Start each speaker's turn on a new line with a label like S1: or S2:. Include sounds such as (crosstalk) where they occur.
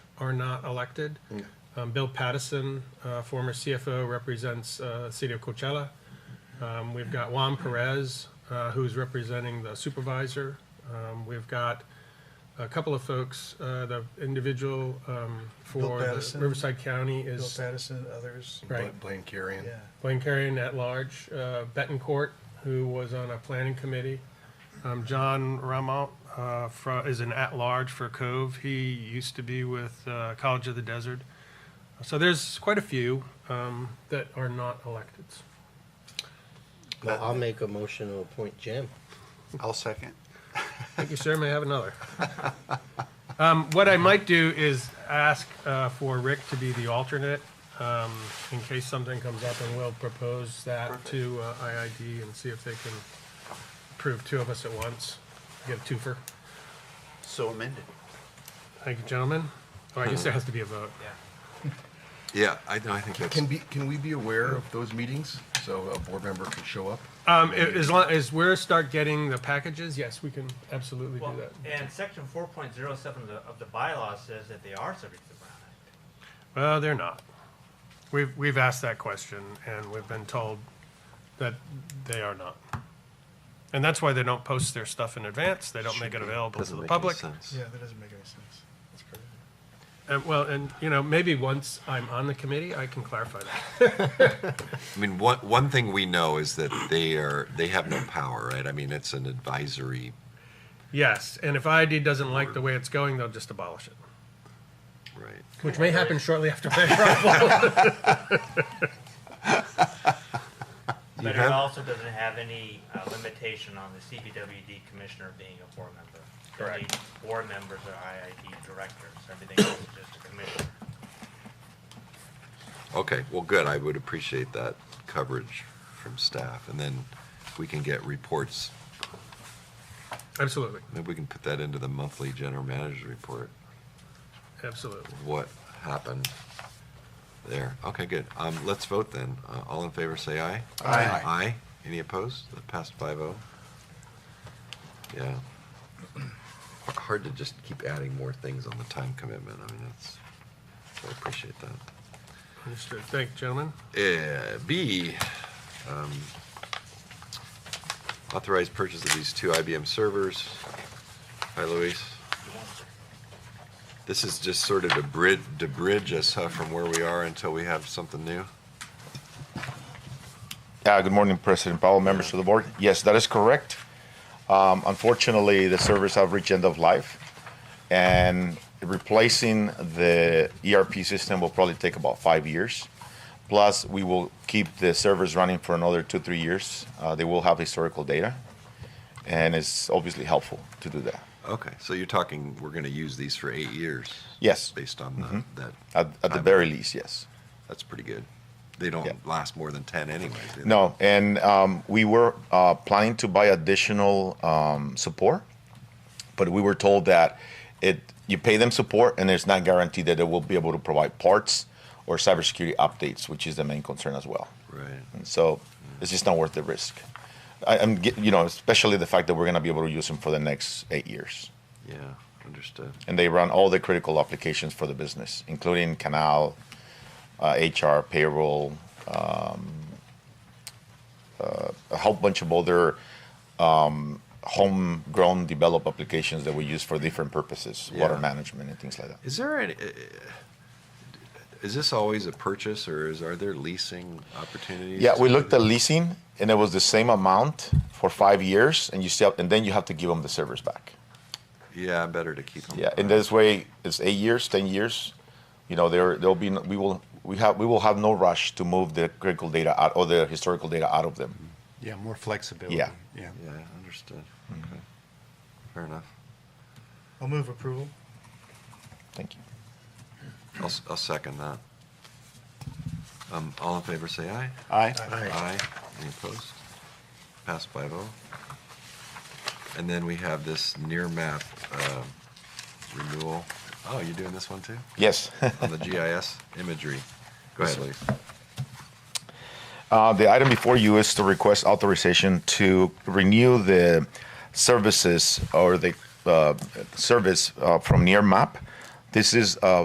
S1: are not elected. Um, Bill Pattison, uh, former CFO, represents uh, City of Coachella. Um, We've got Juan Perez, uh, who's representing the supervisor. Um, We've got a couple of folks, uh, the individual um, for the
S2: Pattison.
S1: Riverside County
S2: Bill
S1: is
S2: Patterson, others,
S1: Right.
S3: Blaine Carrion.
S2: yeah.
S1: Blaine Carrion at large, uh, Betancourt, who was on a planning committee. Um, John Ramont, uh, fro- is an at-large for Cove. He used to be with, uh, College of the Desert. So there's quite a few, um, that are not electeds.
S4: Well, I'll make a motion to appoint Jim.
S3: I'll second.
S1: Thank you, sir. May I have another? (laughs) Um, what I might do is ask, uh, for Rick to be the alternate, um, in case something comes up and we'll propose that to, uh, IID and see if they can approve two of us at once, get a twofer.
S3: So amended.
S1: Thank you, gentlemen. Oh, I guess there has to be a vote.
S5: Yeah, I, no, I think that's,
S6: Can be, can we be aware of those meetings so a board member can show up?
S1: Um, a- as long, as we start getting the packages, yes, we can absolutely do
S7: Well,
S1: that.
S7: and section four point zero seven of the, of the bylaw says that they are subject to the Brown Act.
S1: Well, they're not. We've, we've asked that question and we've been told that they are not. And that's why they don't post their stuff in advance. They don't make it available to
S5: doesn't
S1: the
S5: make any
S1: public.
S5: sense.
S2: Yeah, that doesn't make any sense. That's crazy.
S1: And well, and you know, maybe once I'm on the committee, I can clarify that.
S5: I mean, one, one thing we know is that they are, they have no power, right? I mean, it's an advisory,
S1: Yes, and if IID doesn't like the way it's going, they'll just abolish it,
S5: right?
S1: which may happen shortly after (laughs) my arrival.
S7: But
S5: have-
S7: it also doesn't have any uh, limitation on the CBWD commissioner being a board member. Correct. Board members are IID directors, everything else is just a commissioner.
S5: Okay, well, good. I would appreciate that coverage from staff. And then we can get reports.
S1: Absolutely,
S5: Maybe we can put that into the monthly general manager's report,
S1: absolutely.
S5: what happened there. Okay, good. Um, let's vote then. Uh, all in favor, say aye.
S3: Aye.
S5: Aye. Any opposed? That passed five oh. Yeah. H- Hard to just keep adding more things on the time commitment. I mean, that's, I appreciate that.
S1: Understood. Thank you, gentlemen.
S5: Uh, B, um, authorized purchase of these two IBM servers. Hi, Luis. This is just sort of to bridge, to bridge us huh, from where we are until we have something new.
S8: Uh, Good morning, President Powell, members of the board. Yes, that is correct. Um, Unfortunately, the servers have reached end of life, and replacing the ERP system will probably take about five years. Plus, we will keep the servers running for another two, three years. Uh, They will have historical data, and it's obviously helpful to do that.
S5: Okay, so you're talking, we're going to use these for eight years?
S8: Yes. Mm-hmm.
S5: Based on the- that,
S8: At at the very least, yes.
S5: that's pretty good. They
S8: Yeah.
S5: don't last more than 10 anyways. do they?
S8: No, and um, we were uh, planning to buy additional um, support, but we were told that it you pay them support and it's not guaranteed that they will be able to provide parts or cybersecurity updates, which is the main concern as well.
S5: Right.
S8: And so it's just not worth the risk. I, I'm ge- you know especially the fact that we're going to be able to use them for the next eight years,
S5: Yeah, understood.
S8: and they run all the critical applications for the business, including Canal, uh, HR, payroll, um, uh, a whole bunch of other um, homegrown develop applications that we use for different purposes, water
S5: Yeah.
S8: management and things like that.
S5: Is there any, uh, is this always a purchase or is, are there leasing opportunities?
S8: Yeah, we looked at leasing, and it was the same amount for five years, and you still, and then you have to give them the servers back.
S5: Yeah, better to keep them.
S8: Yeah, in this way, it's eight years, ten years. You know, there there'll be no, we will we have we will have no rush to move the critical data out or the historical data out of them.
S3: Yeah, more flexibility.
S8: Yeah.
S3: Yeah.
S5: Yeah, understood.
S8: Mm-hmm.
S5: Okay. Fair enough.
S2: I'll move approval.
S8: Thank you.
S5: I'll, s- I'll second that. Um, all in favor, say aye.
S3: Aye.
S5: Aye. Any opposed? Passed by vote. And then we have this near map, um, renewal. Oh, you're doing this one too?
S8: Yes. (laughs)
S5: On the GIS imagery. Go ahead, Lee.
S8: Uh, The item before you is to request authorization to renew the services or the uh, service uh, from Nearmap. This is uh,